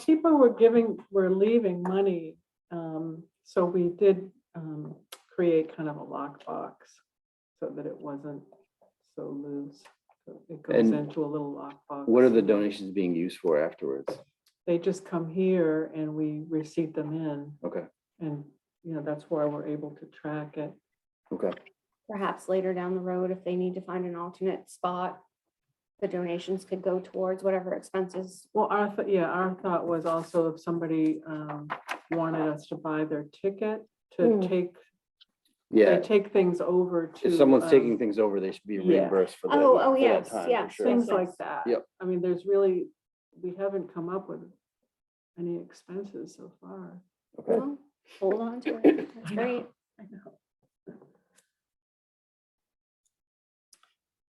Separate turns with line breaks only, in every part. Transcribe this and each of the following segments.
people were giving, were leaving money, um, so we did, um, create kind of a lockbox so that it wasn't so loose. So It goes
And
into a little lockbox.
What are the donations being used for afterwards?
They just come here and we receipt them in
Okay,
and, you know, that's why we're able to track it.
okay.
Perhaps later down the road, if they need to find an alternate spot, the donations could go towards whatever expenses.
Well, our, th- yeah, our thought was also if somebody, um, wanted us to buy their ticket to
Mm.
take, they
Yeah,
take things over to.
if someone's
um,
taking things over, they should be
yeah.
reimbursed for that.
Oh, oh,
for that
yes,
time, for
yeah,
sure.
things
Sure.
like that.
Yep.
I mean, there's really, we haven't come up with any expenses so far.
Okay.
Well, Hold on to it. That's great.
I know.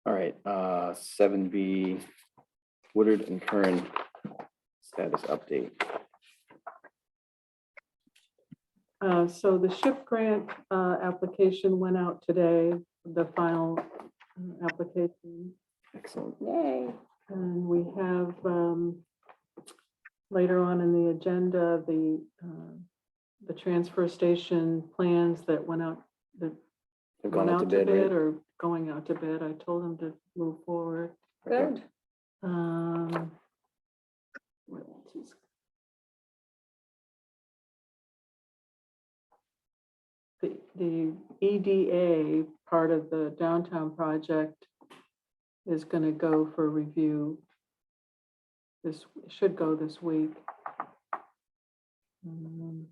All right, uh, seven B, Woodard and Kern status update.
Uh, so the SHIP grant, uh, application went out today, the final uh, application.
Excellent.
Yay.
And we have, um, later on in the agenda, the, uh, the transfer station plans that went out, that
They've
went
gone out to bid, right?
or going out to bid. I told them to move forward.
Okay.
Good.
Um. what else is- The, the EDA part of the downtown project is gonna go for review. This should go this week. Um,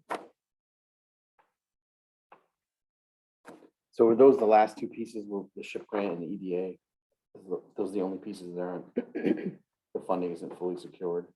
So were those the last two pieces, were the ship grant and the EDA? Is tho- Those are the only pieces that aren't, the funding isn't fully secured?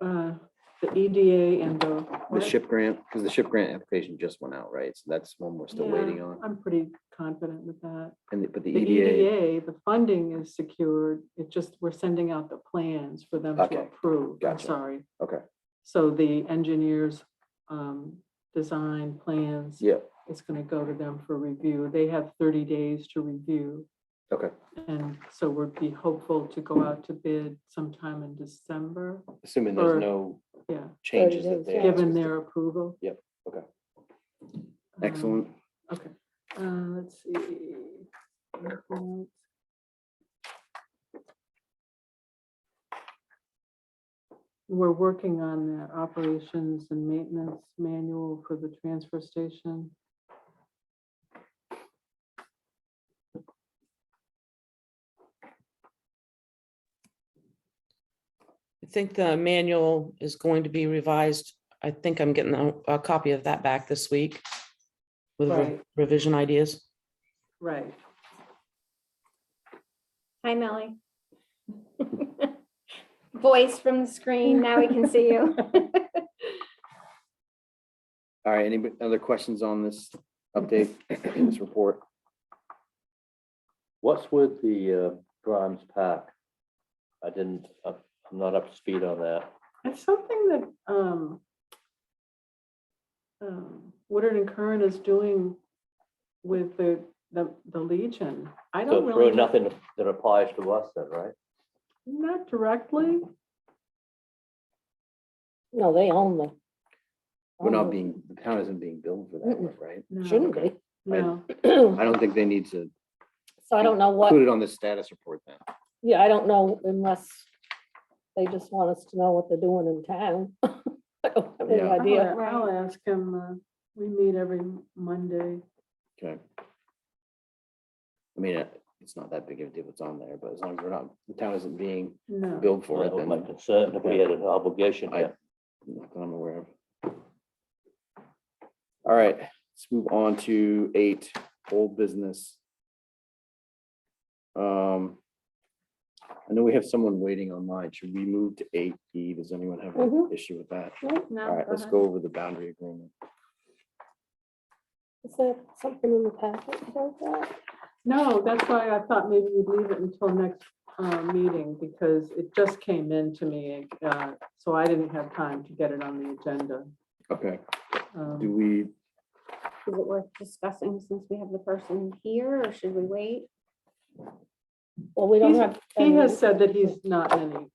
Uh, the EDA and the.
The
what?
ship grant, because the ship grant application just went out, right? So that's one we're still
Yeah,
waiting on.
I'm pretty confident with that.
And, the- but the E
The E
EDA,
EDA, the funding is secured, it just, we're sending out the plans for them to
Okay,
approve, I'm
gotcha.
sorry.
Okay.
So the engineers, um, design plans,
yeah,
it's gonna go to them for review, they have thirty days to review.
Okay.
And so we'd be hopeful to go out to bid sometime in December,
assuming
Or-
there's no
yeah,
changes that
is,
they.
yeah.
ask
given
us to-
their um, approval.
Yep, okay.
Um,
Excellent.
Okay, uh, let's see. anything else? We're working on the operations and maintenance manual for the transfer station.
I think the manual is going to be revised. I think I'm getting a, a copy of that back this week with re-
Right.
revision ideas.
Right.
Hi, Melly. Voice from the screen. Now we can see you.
All right, any other questions on this update, this report?
What's with the uh, Grimes Pack? I didn't, up- I'm not up to speed on that.
It's something that, um, um, Woodard and Curran is doing with the, the, the Legion. I don't
So it's really
really, know-
nothing that applies to us then, right?
not directly.
No, they own the.
We're
own
not
the-
being, the town isn't being billed for that,
Um, Mm-mm.
work, right?
no,
Shouldn't be.
No,
I
So
don't think they need to
I don't know what,
include it on the status report then.
yeah, I don't know unless they just want us to know what they're doing in town. I don't have any
Yeah.
idea.
I'll I'll ask him, uh, we meet every Monday.
Okay. I mean, uh, it's not that big of a deal what's on there, but as long as we're not, the town isn't being
No.
billed
Well,
for it,
That was
then
my concern, if we had an obligation
I-
here.
not that I'm aware of. All right, let's move on to eight, old business. Um, I know we have someone waiting online. Should we move to eight E? Does anyone have an
Mhm.
issue with that? All
No,
right, let's go over the boundary agreement.
Is there something in the packet about that?
No, that's why I thought maybe we'd leave it until next uh, meeting, because it just came in to me, uh, so I didn't have time to get it on the agenda.
Okay,
Um,
do we,
Is it worth discussing since we have the person here or should we wait?
Well, we don't
He's-
have.
He has said that he's not in any